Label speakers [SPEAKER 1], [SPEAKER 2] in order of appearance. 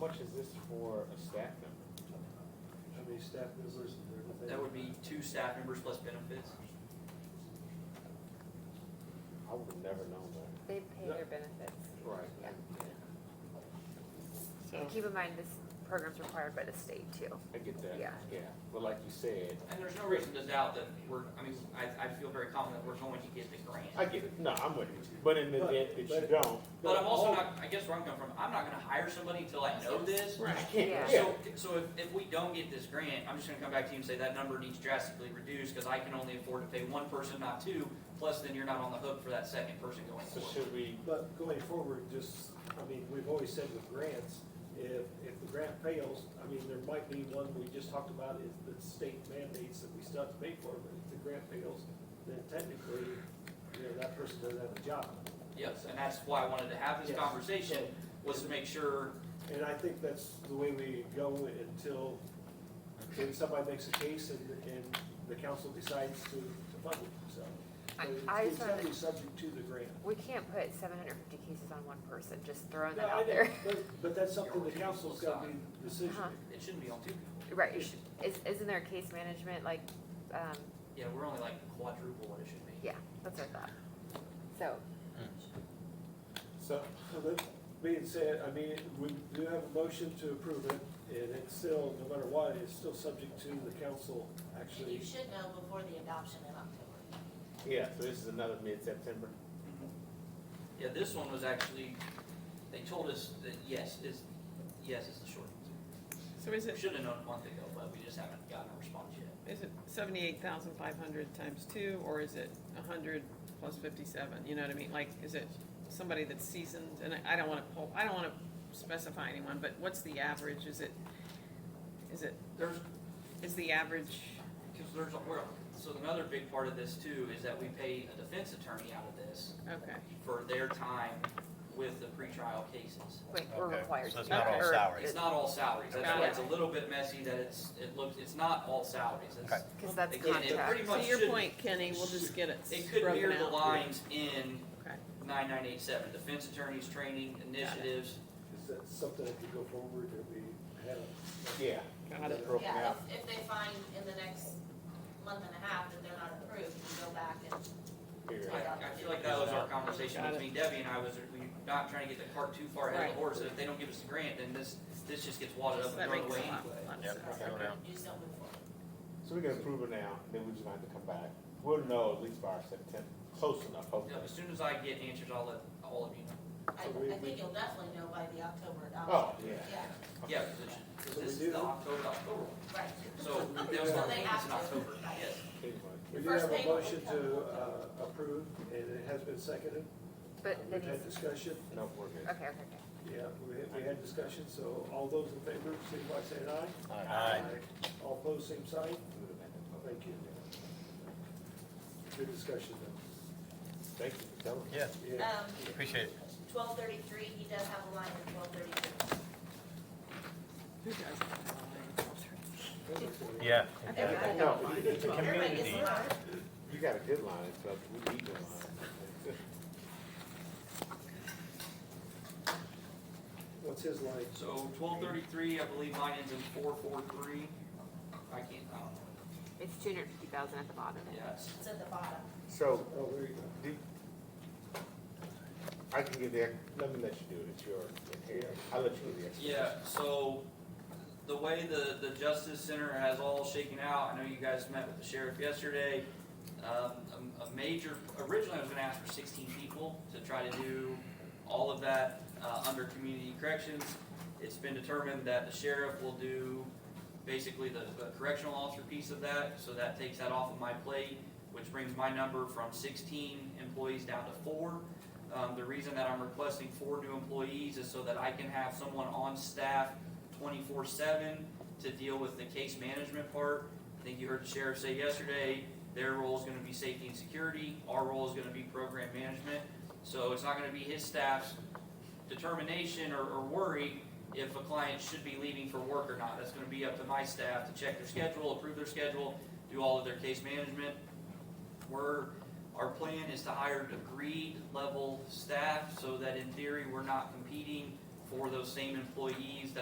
[SPEAKER 1] much is this for a staff member?
[SPEAKER 2] How many staff members and everything?
[SPEAKER 3] That would be two staff members plus benefits.
[SPEAKER 1] I would have never known that.
[SPEAKER 4] They pay their benefits.
[SPEAKER 1] Right.
[SPEAKER 4] Yeah.
[SPEAKER 5] So,
[SPEAKER 4] And keep in mind, this program's required by the state too.
[SPEAKER 1] I get that.
[SPEAKER 4] Yeah.
[SPEAKER 1] But like you said,
[SPEAKER 3] And there's no reason to doubt that we're, I mean, I, I feel very confident we're going to get the
[SPEAKER 1] I
[SPEAKER 3] grant.
[SPEAKER 1] get it. No, I'm with you. But in the
[SPEAKER 2] But-
[SPEAKER 1] event that you
[SPEAKER 2] but-
[SPEAKER 1] don't.
[SPEAKER 3] But I'm also not, I guess where I'm coming from, I'm not gonna hire somebody until I know this.
[SPEAKER 1] Right.
[SPEAKER 4] Yeah.
[SPEAKER 1] Yeah.
[SPEAKER 3] So, so if, if we don't get this grant, I'm just gonna come back to you and say that number needs drastically reduced, cause I can only afford to pay one person, not two, plus then you're not on the hook for that second person going
[SPEAKER 1] So
[SPEAKER 3] forward.
[SPEAKER 1] should we,
[SPEAKER 2] But going forward, just, I mean, we've always said with grants, if, if the grant fails, I mean, there might be one we just talked about, is the state mandates that we still have to pay for, but if the grant fails, then technically, you know, that person doesn't have a job.
[SPEAKER 3] Yes, and that's why I wanted to have this
[SPEAKER 2] Yes.
[SPEAKER 3] conversation, was to make sure,
[SPEAKER 2] And I think that's the way we go until, until somebody makes a case and, and the council decides to, to fund it, so.
[SPEAKER 4] I-
[SPEAKER 2] So it's-
[SPEAKER 4] I
[SPEAKER 2] It's
[SPEAKER 4] sort of-
[SPEAKER 2] definitely subject to the grant.
[SPEAKER 4] We can't put seven hundred and fifty cases on one person, just throwing
[SPEAKER 2] No,
[SPEAKER 4] that
[SPEAKER 2] I
[SPEAKER 4] out
[SPEAKER 2] know,
[SPEAKER 4] there.
[SPEAKER 2] But, but that's something the council's gotta be decision.
[SPEAKER 4] Uh-huh.
[SPEAKER 3] it shouldn't be on two people.
[SPEAKER 4] Right,
[SPEAKER 3] It
[SPEAKER 4] you
[SPEAKER 3] should-
[SPEAKER 4] should- is, isn't there a case management, like, um,
[SPEAKER 3] Yeah, we're only like quadruple what it should be.
[SPEAKER 4] yeah, that's what I thought. So,
[SPEAKER 1] so,
[SPEAKER 2] So that being said, I mean, we do have a motion to approve it, and it's still, no matter what, it's still subject to the council
[SPEAKER 6] And you
[SPEAKER 2] actually.
[SPEAKER 6] should know before the adoption in October.
[SPEAKER 1] yeah, so this is another mid-September?
[SPEAKER 3] Yeah, this one was actually, they told us that yes, is, yes is the short answer.
[SPEAKER 5] so is
[SPEAKER 3] We
[SPEAKER 5] it,
[SPEAKER 3] should have known a month ago, but we just haven't gotten a response yet.
[SPEAKER 5] is it seventy-eight thousand five hundred times two, or is it a hundred plus fifty-seven, you know what I mean? Like, is it somebody that's seasoned, and I- I don't wanna pull, I don't wanna specify anyone, but what's the average, is it, is it,
[SPEAKER 3] There's,
[SPEAKER 5] is the average,
[SPEAKER 3] because there's, a- well, so another big part of this too is that we pay a defense attorney out of this
[SPEAKER 5] okay,
[SPEAKER 3] for their time with the pretrial cases.
[SPEAKER 4] wait, we're
[SPEAKER 7] Okay,
[SPEAKER 4] required.
[SPEAKER 7] so
[SPEAKER 4] to
[SPEAKER 7] it's
[SPEAKER 4] do
[SPEAKER 5] not
[SPEAKER 4] that,
[SPEAKER 5] all
[SPEAKER 4] or
[SPEAKER 7] salary.
[SPEAKER 3] It's not all salaries, that's
[SPEAKER 5] Got
[SPEAKER 3] why
[SPEAKER 5] it.
[SPEAKER 3] it's a little bit messy that it's, it looks, it's not all salaries, it's,
[SPEAKER 7] Okay.
[SPEAKER 4] Cause that's
[SPEAKER 3] It kinda-
[SPEAKER 4] getting
[SPEAKER 3] pretty
[SPEAKER 4] tracked.
[SPEAKER 3] much
[SPEAKER 5] so your
[SPEAKER 3] should-
[SPEAKER 5] point, Kenny, we'll just get it
[SPEAKER 3] it could
[SPEAKER 5] broken
[SPEAKER 3] mirror the
[SPEAKER 5] out.
[SPEAKER 3] lines in
[SPEAKER 5] Okay,
[SPEAKER 3] nine nine eight seven, defense attorneys, training, initiatives,
[SPEAKER 2] Is that something that could go forward that we have?
[SPEAKER 1] Yeah.
[SPEAKER 5] got it.
[SPEAKER 1] Broken
[SPEAKER 6] Yeah,
[SPEAKER 1] out.
[SPEAKER 6] if, if they find in the next month and a half that they're not approved, you go back and,
[SPEAKER 1] Period.
[SPEAKER 3] I, I feel like that was our conversation
[SPEAKER 5] Got it.
[SPEAKER 3] between Debbie and I, was we not trying to get the cart too far ahead of the horse, that if they don't give us the grant, then this, this just gets wadded up
[SPEAKER 5] That
[SPEAKER 3] and thrown
[SPEAKER 5] makes
[SPEAKER 3] away
[SPEAKER 5] a lot,
[SPEAKER 3] anyway.
[SPEAKER 5] lot of
[SPEAKER 7] Yep,
[SPEAKER 5] sense,
[SPEAKER 7] go
[SPEAKER 5] okay.
[SPEAKER 7] down.
[SPEAKER 6] you just don't move forward.
[SPEAKER 1] So we can approve it now, then we just gonna have to come back. We'll know at least by our September, close enough,
[SPEAKER 3] Yeah,
[SPEAKER 1] hopefully.
[SPEAKER 3] as soon as I get answers, I'll let all of you know.
[SPEAKER 2] So we-
[SPEAKER 6] I, I think you'll definitely know by the October
[SPEAKER 1] Oh,
[SPEAKER 6] adoption.
[SPEAKER 1] yeah.
[SPEAKER 3] Yeah, because it should- 'cause
[SPEAKER 2] So we
[SPEAKER 3] this
[SPEAKER 2] do-
[SPEAKER 3] is the October, October one,
[SPEAKER 6] right.
[SPEAKER 3] so that was
[SPEAKER 2] So
[SPEAKER 3] our
[SPEAKER 6] they
[SPEAKER 3] thing,
[SPEAKER 6] have
[SPEAKER 3] it's in
[SPEAKER 6] to.
[SPEAKER 3] October, yes.
[SPEAKER 1] Pretty much.
[SPEAKER 2] We
[SPEAKER 6] The
[SPEAKER 2] do
[SPEAKER 6] first
[SPEAKER 2] have a
[SPEAKER 6] payment will
[SPEAKER 2] motion
[SPEAKER 6] come
[SPEAKER 2] to,
[SPEAKER 6] in
[SPEAKER 2] uh, approve, and it has been seconded.
[SPEAKER 4] But
[SPEAKER 2] Uh,
[SPEAKER 4] then
[SPEAKER 2] We've had
[SPEAKER 4] he's,
[SPEAKER 2] discussion,
[SPEAKER 1] No, we're good.
[SPEAKER 4] okay, okay, okay.
[SPEAKER 2] yeah, we had, we had discussion, so all those in favor, signify by saying aye.
[SPEAKER 7] Aye.
[SPEAKER 2] All opposed, same sign. Thank you. Good discussion,
[SPEAKER 1] Thank you for telling me.
[SPEAKER 7] Yeah,
[SPEAKER 2] though. Yeah.
[SPEAKER 6] Um,
[SPEAKER 7] appreciate it.
[SPEAKER 6] twelve thirty-three, he does have a line in twelve thirty-three.
[SPEAKER 5] Who does that?
[SPEAKER 7] Yeah.
[SPEAKER 5] I think I
[SPEAKER 1] No.
[SPEAKER 5] know mine.
[SPEAKER 6] Everybody gets a
[SPEAKER 7] Community.
[SPEAKER 6] line.
[SPEAKER 1] You got a good line, it's up, we need a line.
[SPEAKER 2] What's his line?
[SPEAKER 3] So twelve thirty-three, I believe mine ends in four four three, I can't, I don't know,
[SPEAKER 4] It's two hundred and fifty thousand at the bottom.
[SPEAKER 3] yeah, it's,
[SPEAKER 6] It's at the bottom.
[SPEAKER 1] So,
[SPEAKER 2] Oh, there you go.
[SPEAKER 1] do, I can give the, let me let you do it, it's your, I'll let you do the explanation.
[SPEAKER 3] Yeah, so the way the, the Justice Center has all shaken out, I know you guys met with the sheriff yesterday. Um, a, a major, originally I was gonna ask for sixteen people to try to do all of that, uh, under community corrections. It's been determined that the sheriff will do basically the, the correctional officer piece of that, so that takes that off of my plate, which brings my number from sixteen employees down to four. Um, the reason that I'm requesting four new employees is so that I can have someone on staff twenty-four seven to deal with the case management part. I think you heard the sheriff say yesterday, their role is gonna be safety and security, our role is gonna be program management. So it's not gonna be his staff's determination or, or worry if a client should be leaving for work or not. That's gonna be up to my staff to check their schedule, approve their schedule, do all of their case management. We're our plan is to hire degree level staff so that in theory, we're not competing for those same employees that